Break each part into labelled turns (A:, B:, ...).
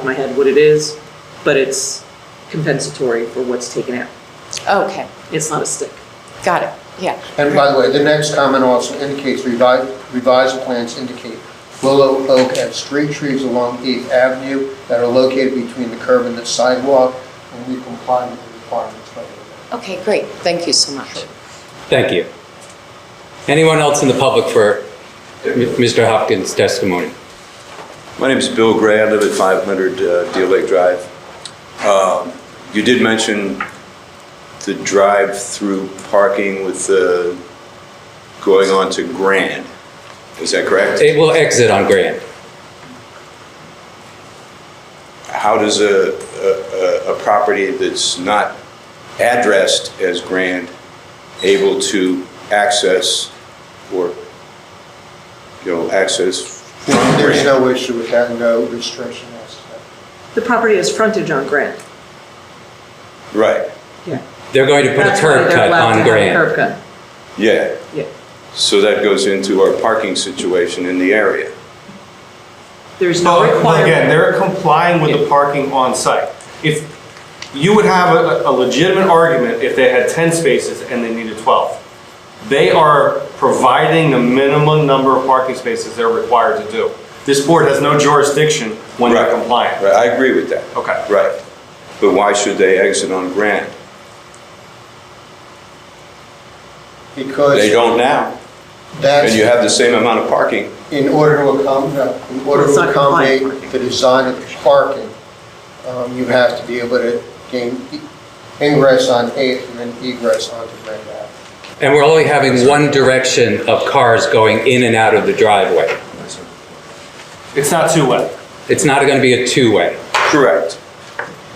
A: of my head what it is, but it's compensatory for what's taken out.
B: Okay,
A: It's not a stick.
B: got it, yeah.
C: And by the way, the next comment also indicates revised, revised plans indicate willow, oak, and street trees along 8th Avenue that are located between the curb and the sidewalk, and we comply with the requirements. by the
B: Okay, great, thank you so much.
D: Thank you. Anyone else in the public for M- Mr. Hopkins' testimony?
E: My name's Bill Gray. I live at 500 uh, Deal Lake Drive. Um, You did mention the drive-through parking with uh, going on to Grand. Is that correct?
D: It will exit on Grand.
E: How does a- a a- a property that's not addressed as Grand able to access or, you know, access from
C: way. There's
E: Grand?
C: no issue with that, no restriction as to that.
A: The property has frontage on Grant.
E: Right,
A: Yeah.
D: They're going to put a
A: That's why
D: curb
A: they're
D: cut
A: allowed to
D: on
A: have a Curb
D: Grand.
A: cut,
E: yeah.
A: yeah.
E: So that goes into our parking situation in the area.
A: There's no
F: Well, well,
A: requirement.
F: Again, they're complying with the parking on site. If, you would have a a legitimate argument if they had 10 spaces and they needed 12. They are providing the minimum number of parking spaces they're required to do. This board has no jurisdiction when they're
E: Right.
F: compliant.
E: Right, I agree with that.
F: Okay.
E: Right. But why should they exit on Grand? They
C: Because
E: don't now, and you
C: that's,
E: have the same amount of parking.
C: in order to accommodate, in order
A: It's
C: to
A: not compliant
C: accommodate the design of the parking, um, you have to be able to gain e- ingress on 8th and then egress onto Grand Avenue.
D: And we're only having one direction of cars going in and out of the driveway.
F: It's not two-way.
D: It's not going to be a two-way.
E: Correct.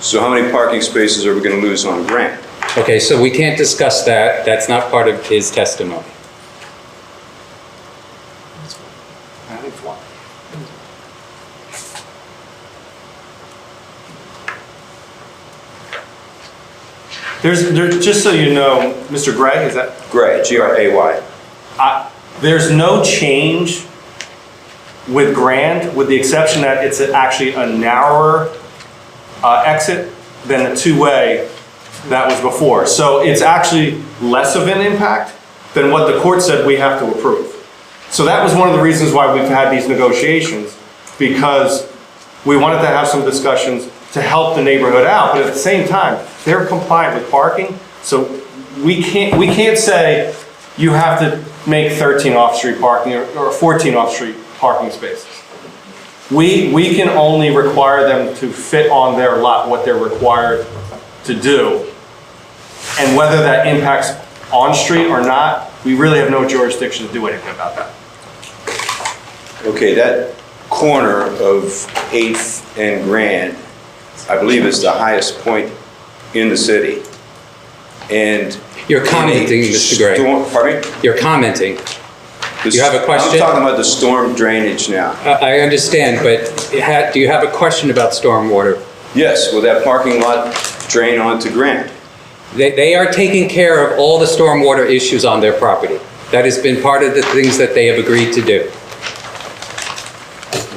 E: So how many parking spaces are we going to lose on Grand?
D: Okay, so we can't discuss that. That's not part of his testimony.
F: There's, there, just so you know, Mr. Gray, is that,
E: Gray, G-R-A-Y.
F: I- there's no change with Grand, with the exception that it's actually a narrower uh, exit than the two-way that was before. So it's actually less of an impact than what the court said we have to approve. So that was one of the reasons why we've had these negotiations, because we wanted to have some discussions to help the neighborhood out, but at the same time, they're compliant with parking, so we can't, we can't say you have to make 13 off-street parking or or 14 off-street parking spaces. We, we can only require them to fit on their lot what they're required to do. And whether that impacts on-street or not, we really have no jurisdiction to do anything about that.
E: Okay, that corner of 8th and Grand, I believe is the highest point in the city. And.
D: You're commenting,
E: any
D: Mr. Gray.
E: storm- Pardon me?
D: You're commenting.
E: The
D: You have a
E: s-
D: question?
E: I'm talking about the storm drainage now.
D: I I understand, but ha- do you have a question about stormwater?
E: Yes, will that parking lot drain onto Grand?
D: They, they are taking care of all the stormwater issues on their property. That has been part of the things that they have agreed to do.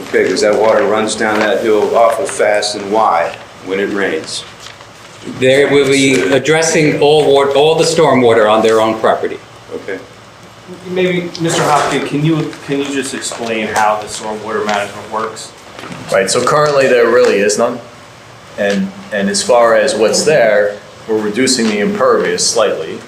E: Okay, because that water runs down that hill awful fast and wide when it rains.
D: They will be addressing all wa, all the stormwater on their own property.
E: Okay.
F: Maybe, Mr. Hopkins, can you, can you just explain how the stormwater management works?
G: Right, so currently there really is none. And, and as far as what's there, we're reducing the impervious slightly.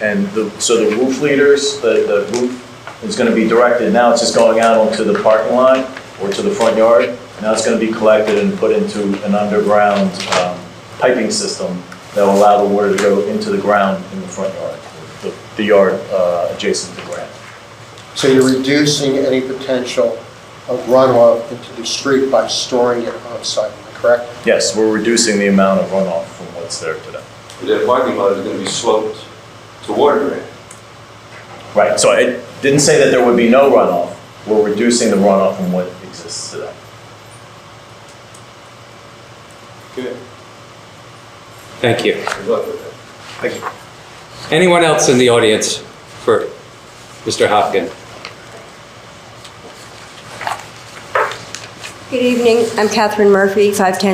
G: And the, so the roof leaders, the, the roof is gonna be directed, now it's just going out onto the parking lot or to the front yard. Now it's gonna be collected and put into an underground um, piping system that will allow the water to go into the ground in the front yard, the, the yard uh, adjacent to the ground.
C: So you're reducing any potential of runoff into the street by storing it on-site, am I correct?
G: Yes, we're reducing the amount of runoff from what's there today.
E: That parking lot is going to be sloped to water drain.
G: Right, so it didn't say that there would be no runoff. We're reducing the runoff from what exists today.
E: Good.
D: Thank you.
E: Good luck with that.
G: Thank you.
D: Anyone else in the audience for Mr. Hopkins?
H: Good evening, I'm Catherine Murphy, 510